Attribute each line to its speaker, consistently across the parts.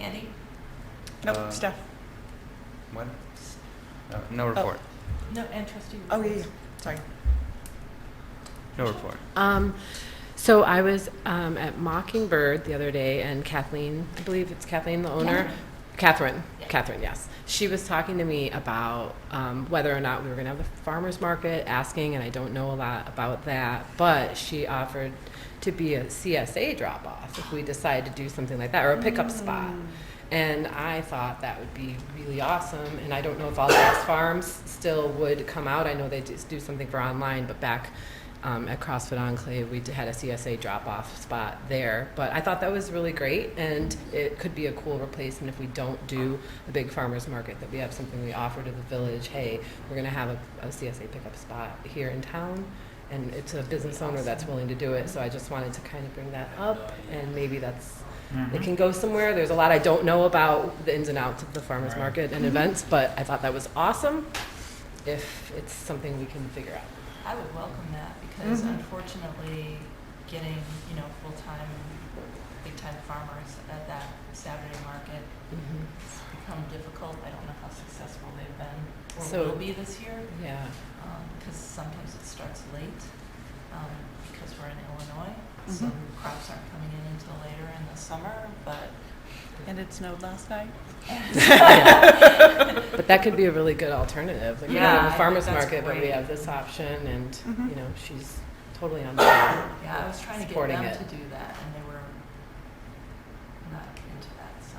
Speaker 1: Andy?
Speaker 2: Uh,
Speaker 3: Nope, Steph.
Speaker 2: What? No, no report.
Speaker 1: No, and trustee.
Speaker 3: Oh, yeah, yeah,
Speaker 1: reports.
Speaker 3: sorry.
Speaker 2: No report.
Speaker 4: Um, so I was um, at Mockingbird the other day, and Kathleen, I believe it's Kathleen, the owner,
Speaker 1: Yeah.
Speaker 4: Catherine,
Speaker 1: Yeah.
Speaker 4: Catherine, yes. She was talking to me about um, whether or not we were going to have the farmers market, asking, and I don't know a lot about that, but she offered to be a CSA drop off if we decide to do something like that, or a
Speaker 1: Mm.
Speaker 4: pickup spot. And I thought that would be really awesome. And I don't know if all the farms still would come out. I know they just do something for online, but back um, at CrossFit Enclave, we d- had a CSA drop off spot there. But I thought that was really great, and it could be a cool replacement if we don't do the big farmers market, that we have something we offer to the village. Hey, we're going to have a, a CSA pickup spot here in town. And it's a business owner that's willing to do it. So I just wanted to kind of bring that up, and maybe that's
Speaker 2: Mm-hmm.
Speaker 4: it can go somewhere. There's a lot I don't know about the ins and outs of the farmers
Speaker 2: Right.
Speaker 4: market and events, but I thought that was awesome if it's something we can figure out.
Speaker 1: I would welcome that because
Speaker 4: Mm-hmm.
Speaker 3: Mhm.
Speaker 1: unfortunately, getting, you know, full-time, big-time farmers at that Saturday market has become difficult. I don't know how successful they've been or
Speaker 4: So-
Speaker 1: will be this year
Speaker 4: Yeah.
Speaker 1: because sometimes it starts late um, because we're in Illinois. So
Speaker 3: Mhm.
Speaker 4: Mm-hmm.
Speaker 1: crops aren't coming in until later in the summer, but
Speaker 3: And it snowed last night?
Speaker 4: But that could be a really good alternative. Like, we
Speaker 1: Yeah,
Speaker 4: don't
Speaker 1: I
Speaker 4: have a
Speaker 1: think
Speaker 4: farmer's
Speaker 1: that's
Speaker 4: market, but we
Speaker 1: great. Mm-hmm.
Speaker 4: have this option, and,
Speaker 3: Mhm.
Speaker 4: you know, she's totally on board.
Speaker 1: Yeah, I was trying to get
Speaker 4: supporting
Speaker 1: them
Speaker 4: it.
Speaker 1: to do that, and they were not into that. So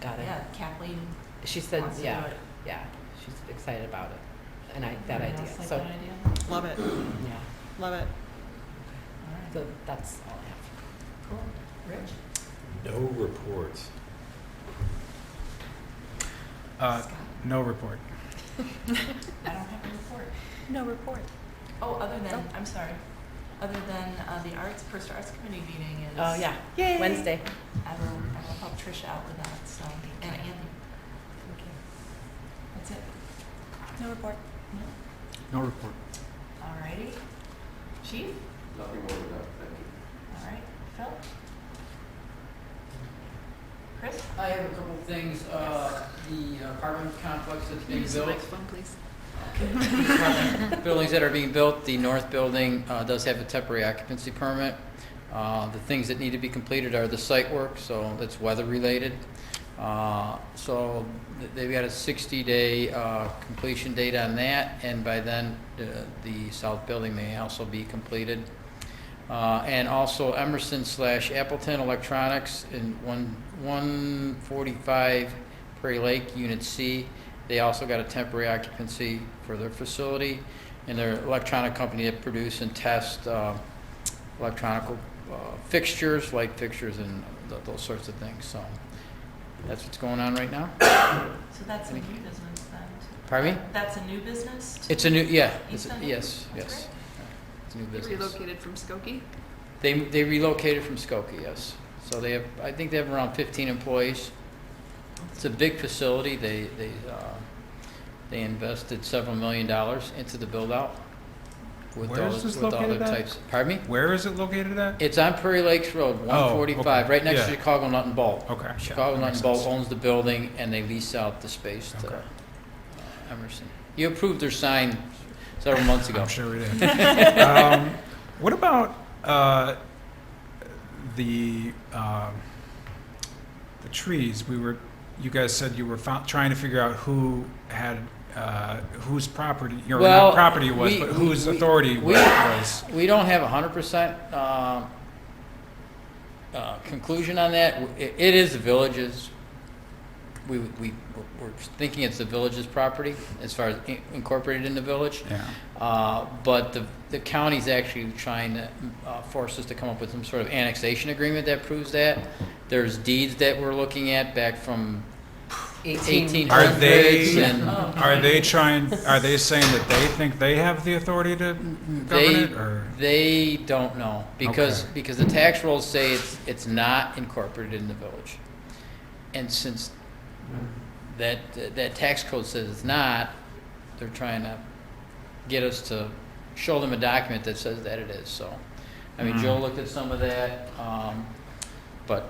Speaker 4: Got it.
Speaker 1: yeah, Kathleen
Speaker 4: She said,
Speaker 1: wants to
Speaker 4: yeah,
Speaker 1: do it.
Speaker 4: yeah, she's excited about it, and I, that
Speaker 1: Anyone
Speaker 4: idea.
Speaker 1: else like
Speaker 4: So,
Speaker 1: that idea?
Speaker 3: Love it,
Speaker 4: yeah,
Speaker 3: love it.
Speaker 1: All right,
Speaker 4: so that's all I have.
Speaker 1: cool. Rich,
Speaker 5: No reports.
Speaker 2: Uh,
Speaker 1: Scott,
Speaker 2: no report.
Speaker 1: I don't have a report.
Speaker 3: No report.
Speaker 1: Oh, other than I'm sorry. Other than uh, the arts, first arts committee meeting is.
Speaker 4: Oh, yeah,
Speaker 3: Yay.
Speaker 4: Wednesday.
Speaker 1: I will, I will help Tricia out with that. So and Andy. That's it.
Speaker 3: No report.
Speaker 1: No?
Speaker 2: No report.
Speaker 1: All righty. Chief.
Speaker 5: Nothing more than that, thank you.
Speaker 1: All right. Phil. Chris.
Speaker 6: I have a couple of things. Uh, the apartment complex that's being built. Apartment Buildings that are being built, the north building uh, does have a temporary occupancy permit. Uh, The things that need to be completed are the site work, so that's weather-related. Uh, So th- they've got a 60-day completion date on that, and by then, uh, the south building may also be completed. Uh, And also Emerson slash Appleton Electronics in one 145 Prairie Lake, Unit C. They also got a temporary occupancy for their facility, and their electronic company that produce and test uh, electronic uh, fixtures, light fixtures, and th- those sorts of things. So that's what's going on right now.
Speaker 1: So that's a new business then?
Speaker 6: Pardon me?
Speaker 1: That's a new business? to
Speaker 6: It's a new, yeah, it's a-
Speaker 1: Easton?
Speaker 6: yes,
Speaker 1: That's
Speaker 6: yes.
Speaker 1: great.
Speaker 6: It's a new
Speaker 7: He
Speaker 6: business.
Speaker 7: relocated from Skokie.
Speaker 6: They, they relocated from Skokie, yes. So they have, I think they have around 15 employees. It's a big facility. They, they, uh, they invested several million dollars into the build-out with
Speaker 2: Where
Speaker 6: all,
Speaker 2: is this
Speaker 6: with all
Speaker 2: located
Speaker 6: their
Speaker 2: at?
Speaker 6: types. Pardon me?
Speaker 2: Where is it located at?
Speaker 6: It's on Prairie Lakes Road, 145,
Speaker 2: Oh, okay,
Speaker 6: right next to
Speaker 2: yeah.
Speaker 6: Chicago Nut and Bolt.
Speaker 2: Okay. yeah,
Speaker 6: Chicago
Speaker 2: that
Speaker 6: Nut
Speaker 2: makes
Speaker 6: and Bolt
Speaker 2: sense.
Speaker 6: owns the building, and they lease out the space to
Speaker 2: Okay.
Speaker 6: uh, Emerson. You approved their sign several months ago.
Speaker 2: I'm sure we did. um, what about uh, the um, the trees? We were, you guys said you were fou- trying to figure out who had uh, whose property, your
Speaker 6: Well,
Speaker 2: property was,
Speaker 6: we-
Speaker 2: but
Speaker 6: we-
Speaker 2: whose
Speaker 6: we-
Speaker 2: authority
Speaker 6: we-
Speaker 2: was.
Speaker 6: We don't have a hundred percent, um, uh, conclusion on that. It, it is the village's, we, we, we're thinking it's the village's property as far as in- incorporated in the village.
Speaker 2: Yeah.
Speaker 6: Uh, but the, the county's actually trying to uh, force us to come up with some sort of annexation agreement that proves that. There's deeds that we're looking at back from eighteen
Speaker 2: Are they-
Speaker 1: Oh,
Speaker 6: hundreds and
Speaker 2: Are they trying? Are they saying that they think they have the authority to govern
Speaker 6: they,
Speaker 2: it, Mm-hmm. or
Speaker 6: they don't know because,
Speaker 2: Okay.
Speaker 6: because the tax rolls say it's, it's not incorporated in the village. And since that, that tax code says it's not, they're trying to get us to show them a document that says that it is, so. I mean, Joe looked at some of that, um,